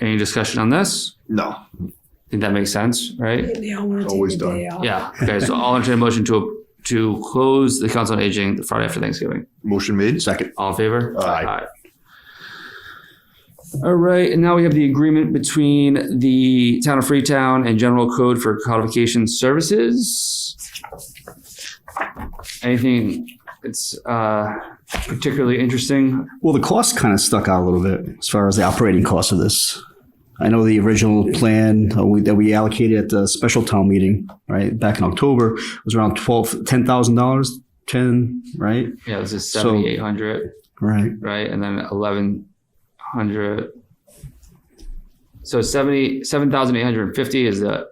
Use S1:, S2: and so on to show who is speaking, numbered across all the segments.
S1: Any discussion on this?
S2: No.
S1: I think that makes sense, right?
S3: They all want to
S2: Always
S3: take a
S2: done.
S3: day off.
S1: Yeah. Okay. So I'll entertain a motion to to close the Council on Aging the Friday after Thanksgiving.
S2: Motion made. Second.
S1: All in favor?
S2: Aye.
S1: All right, and now we have the agreement between the Town of Freetown and General Code for Codification Services. Anything that's uh, particularly interesting?
S4: Well, the cost kind of stuck out a little bit as far as the operating cost of this. I know the original plan uh, we- that we allocated at the special town meeting, right, back in October, was around twelve, ten thousand dollars, ten, right?
S1: Yeah, this is
S4: So-
S1: seventy-eight hundred,
S4: Right.
S1: right, and then eleven hundred. So seventy, seven thousand eight hundred and fifty is the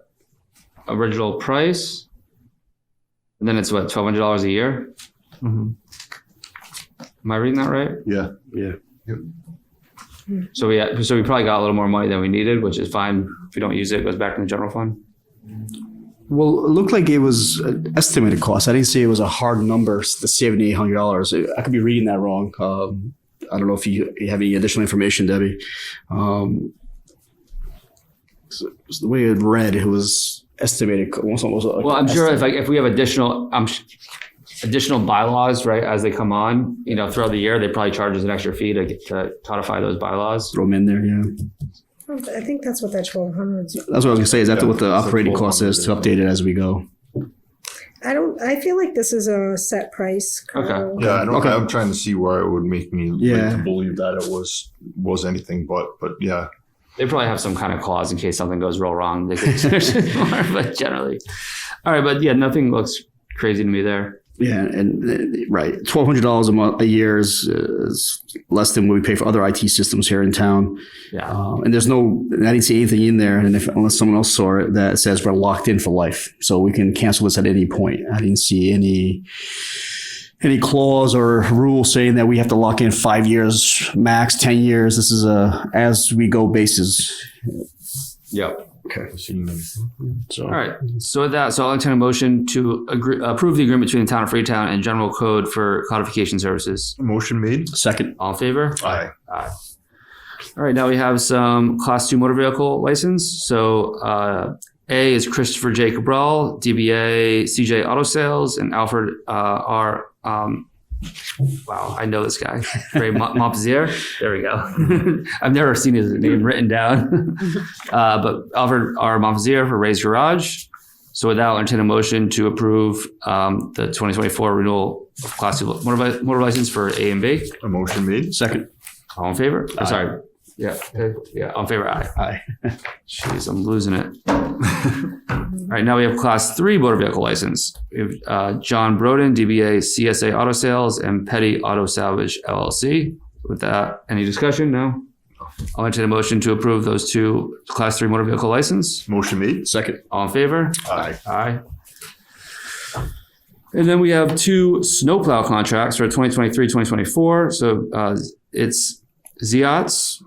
S1: original price. And then it's what, twelve hundred dollars a year? Am I reading that right?
S2: Yeah.
S1: So we, had- so we probably got a little more money than we needed, which is fine. If we don't use it, it goes back in the general fund.
S4: Well, it looked like it was an estimated cost. I didn't say it was a hard number, s- the seventy-eight hundred dollars. I could be reading that wrong. Um, I don't know if you, you have any additional information, Debbie. Um, so, so the way it read, it was estimated. co- almost- almost like-
S1: Well, I'm sure if like, if we have additional, um, additional bylaws, right, as they come on, you know, throughout the year, they probably charge us an extra fee to, to codify those bylaws.
S4: Throw them in there, yeah.
S3: I think that's what that twelve hundred is.
S4: That's what I was gonna say. Is that
S2: Yeah,
S4: what the
S2: it's like
S4: operating cost is to
S2: 1200,
S4: update it as we go?
S3: I don't, I feel like this is a set price.
S1: Okay.
S3: Carl.
S2: Yeah. I don't,
S4: Okay.
S2: I'm trying to see why it would make me like, to
S4: Yeah.
S2: believe that it was was anything but. But yeah.
S1: They probably have some kind of clause in case something goes real wrong. They could charge us more, but generally. All right, but yeah, nothing looks crazy to me there.
S4: Yeah, and uh, right, twelve hundred dollars a month a year is, uh, is less than what we pay for other IT systems here in town.
S1: Yeah.
S4: Um, and there's no, I didn't see anything in there, and if unless someone else saw it that says we're locked in for life, so we can cancel this at any point. I didn't see any any clause or rule saying that we have to lock in five years max, ten years. This is a as we go basis.
S1: Yep.
S2: I've seen them.
S4: So
S1: All right. So with that, so I'll entertain a motion to agree, approve the agreement between the town of Freetown and general code for codification services.
S2: Motion made.
S4: second,
S1: All in favor?
S2: Aye.
S1: All right, now we have some class two motor vehicle license. So uh, A is Christopher J. Cabral, DBA CJ Auto Sales, and Alfred uh, R. Um, wow, I know this guy. Ray Mo- Mopzier. There we go. I've never seen his name written down. uh, but Alfred R. Mopzier for Ray's Garage. So with that, I'll entertain a motion to approve um, the 2024 renewal of class two motor, vi- motor license for A and B.
S2: A motion made.
S4: second,
S1: All in favor? Oh, sorry. Yeah. uh, Yeah. All in favor. Aye.
S4: aye.
S1: Jeez, I'm losing it. All right. Now we have class three motor vehicle license. We have uh, John Broden, DBA CSA Auto Sales and Petty Auto Salvage LLC. With that, any discussion? No. I'll entertain a motion to approve those two class three motor vehicle license.
S2: Motion made.
S4: Second,
S1: All in favor?
S2: Aye.
S1: Aye. And then we have two snowplow contracts for 2023, 2024. So uh, it's Ziot's,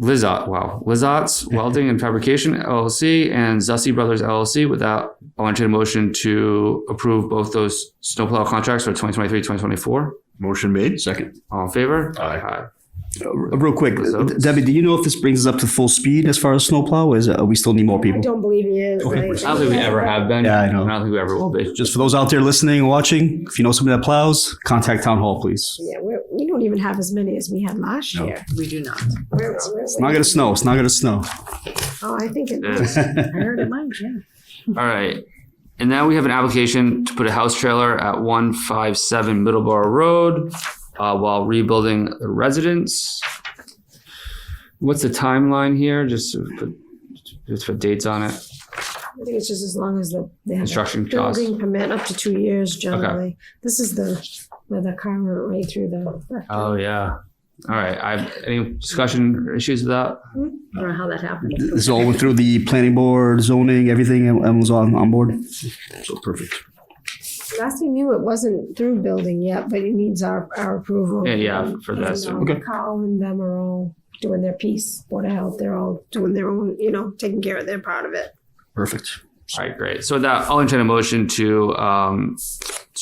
S1: Lizot, wow, Lizot's Welding and Fabrication LLC and Zussi Brothers LLC. Without, I want you to motion to approve both those snowplow contracts for 2023, 2024.
S2: Motion made.
S4: second.
S1: All in favor?
S2: Aye.
S4: Uh, Real quick,
S1: Results.
S4: Debbie, do you know if this brings us up to full speed as far as snowplow? Or is it, uh, we still need more
S3: I
S4: people?
S3: don't believe he is.
S4: Okay.
S3: right?
S1: I don't think we ever have been.
S4: Yeah, I know.
S1: I don't think we ever will be.
S4: Just for those out there listening and watching, if you know somebody that plows, contact town hall, please.
S3: Yeah, we're, we don't even have as many as we had last
S4: No.
S3: year.
S5: We do not.
S3: We're- we're-
S4: It's not gonna snow. It's not gonna snow.
S3: Oh, I think it
S1: Yeah.
S3: was.
S5: I heard it might, yeah.
S1: All right. And now we have an application to put a house trailer at one five seven Middleborough Road uh, while rebuilding the residence. What's the timeline here? Just to put, just put dates on it.
S3: I think it's just as long as the, they have a
S1: Construction costs.
S3: building permit, up to two years generally. This is the, where the car went right through the.
S1: Oh yeah. All right. I have any discussion or issues with that?
S5: I don't know how that happened.
S4: This all went through the planning board, zoning, everything, and and was on, on board. So perfect.
S3: Last we knew, it wasn't through building yet, but it needs our, our approval.
S1: Yeah, yeah, for
S3: And,
S1: this.
S3: um,
S1: Okay.
S3: Carl and them are all doing their piece, Board of Health, they're all doing their own, you know, taking care of their part of it.
S4: Perfect.
S1: All right, great. So with that I'll entertain a motion to um,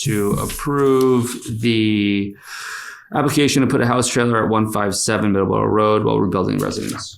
S1: to approve the application to put a house trailer at one five seven Middleborough Road while rebuilding residence.